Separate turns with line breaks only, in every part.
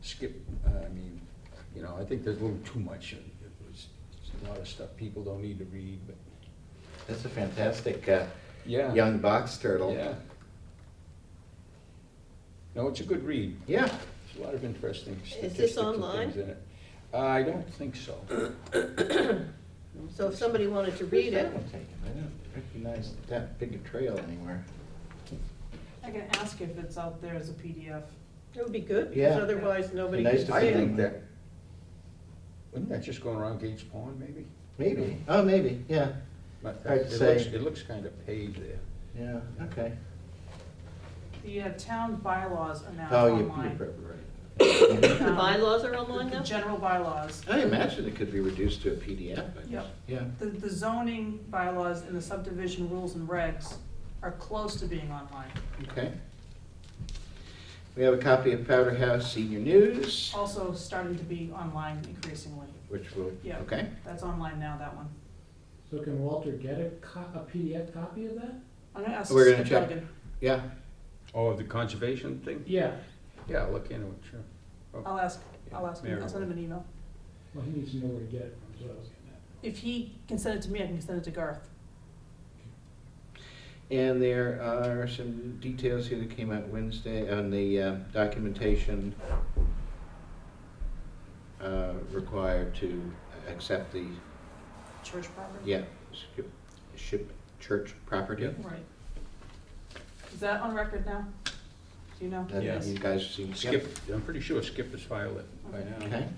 skip, uh, I mean, you know, I think there's a little too much. It was a lot of stuff people don't need to read, but,
That's a fantastic uh,
yeah.
young box turtle.
Yeah. No, it's a good read.
Yeah.
There's a lot of interesting
this
statistics and things in it.
online?
Uh, I don't think so.
So if somebody wanted to read it,
I'll take it. I don't recognize that big a trail anywhere.
I can ask if it's out there as a PDF.
it would be good,
Yeah.
because otherwise nobody
Nice
can see
to
I
see.
it.
think that, wouldn't that just go around Gates Pond, maybe?
Maybe. Oh, maybe. Yeah.
But
I'd
it
say-
looks, it looks kind of paved there.
Yeah. Okay.
The uh, town bylaws are now
Oh, you- you're
online.
probably right.
The bylaws are online
The
now?
general bylaws.
I imagine it could be reduced to a PDF. I
Yep.
guess. Yeah.
The, the zoning bylaws and the subdivision rules and regs are close to being online.
Okay. We have a copy of Powder House Senior News,
Also starting to be online increasingly.
which will,
Yeah.
okay.
That's online now, that one.
So can Walter get a co- a PDF copy of that?
I'm gonna ask
We're gonna
Skip
check.
Duggan.
Yeah.
Oh, the conservation thing?
Yeah,
Yeah, I'll look into it, sure.
I'll ask, I'll ask him, I'll send him an email.
well, he needs to know where to get it from, so.
If he can send it to me, I can send it to Garth.
And there are some details here that came out Wednesday on the uh, documentation uh, required to accept the,
Church property?
yeah, skip- ship, church property.
Right. Is that on record now? Do you know?
That
Yes.
You guys seem.
Skip, I'm pretty sure Skip has filed it by
Okay.
now.
Okay.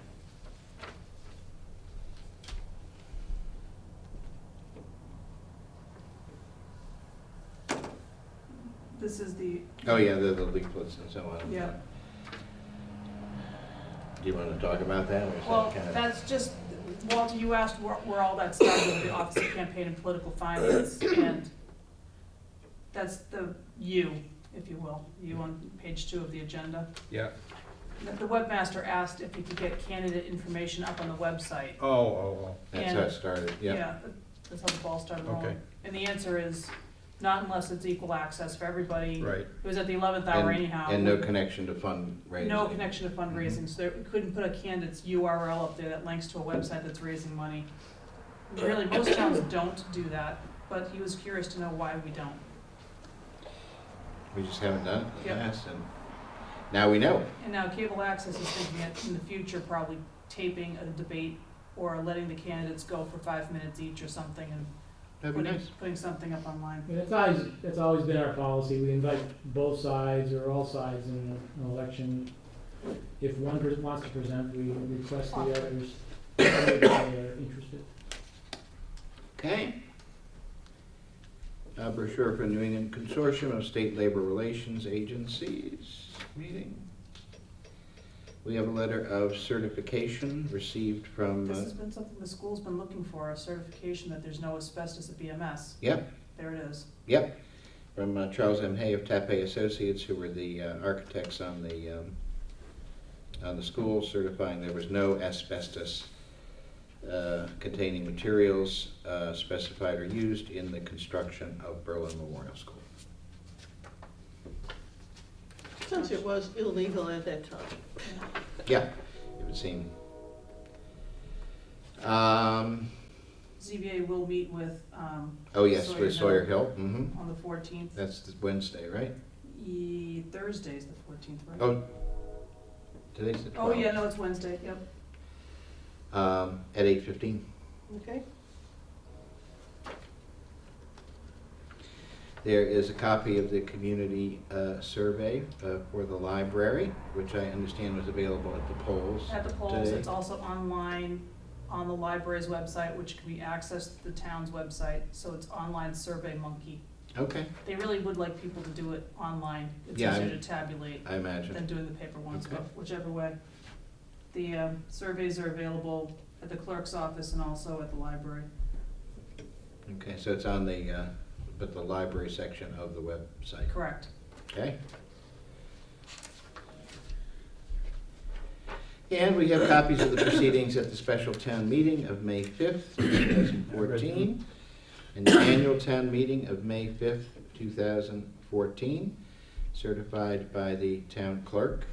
This is the.
Oh, yeah, the the leaflets and so on. Uh,
Yeah.
Do you want to talk about that or is
Well,
that kind of?
that's just, Walter, you asked where, where all that started with the Office of Campaign and Political Finance, and that's the you, if you will, you on page two of the agenda.
Yeah,
The the webmaster asked if he could get candidate information up on the website.
oh, oh,
That's how it started, yeah.
That's how the ball started
Okay.
rolling. And the answer is, not unless it's equal access for everybody.
oh, right.
It was at the eleventh hour
And-
anyhow.
And no connection to fundraising.
No connection to fundraising, so they couldn't put a candidate's URL up there that links to a website that's raising money. Really, most towns don't do that, but he was curious to know why we don't.
We just haven't done it in the
Yep.
past and now we know.
And now cable access is thinking that in the future, probably taping a debate or letting the candidates go for five minutes each or something and
That'd be
putting,
nice.
putting something up online.
And it's always, it's always been our policy, we invite both sides or all sides in an election. If one person wants to present, we request the others, if they are interested.
Okay. Uh, brochure for New England Consortium of State Labor Relations Agencies meeting. We have a letter of certification received from,
This
uh,
has been something the school's been looking for, a certification that there's no asbestos at BMS.
Yep.
There it is.
yep, from uh, Charles M. Hay of Tape Associates, who were the uh, architects on the, um, on the school certifying there was no asbestos uh, containing materials uh, specified or used in the construction of Berlin Memorial School.
Since it was illegal at that time.
Yeah, it would seem. Um,
ZBA will meet with, um,
oh yes,
Sawyer Hill.
with Sawyer Hill, hmm
on the fourteenth.
That's the Wednesday, right?
Ye- E, Thursday's the fourteenth, right?
Oh, today's the
Oh,
twelfth.
yeah, no, it's Wednesday, yep.
Um, at eight fifteen.
Okay.
There is a copy of the community, uh, survey, uh, for the library, which I understand was available at the polls.
At the polls,
Today.
it's also online on the library's website, which can be accessed through the town's website, so it's online Survey Monkey.
Okay,
They really would like people to do it online. It's
Yeah, I-
easier to tabulate
I
than
imagine.
doing the paper ones,
Okay.
but whichever way. The, um, surveys are available at the clerk's office and also at the library.
Okay, so it's on the, uh, but the library section of the website.
Correct.
Okay. And we have copies of the proceedings at the special town meeting of May 5th, 2014, and the annual town meeting of May 5th, 2014, certified by the town clerk.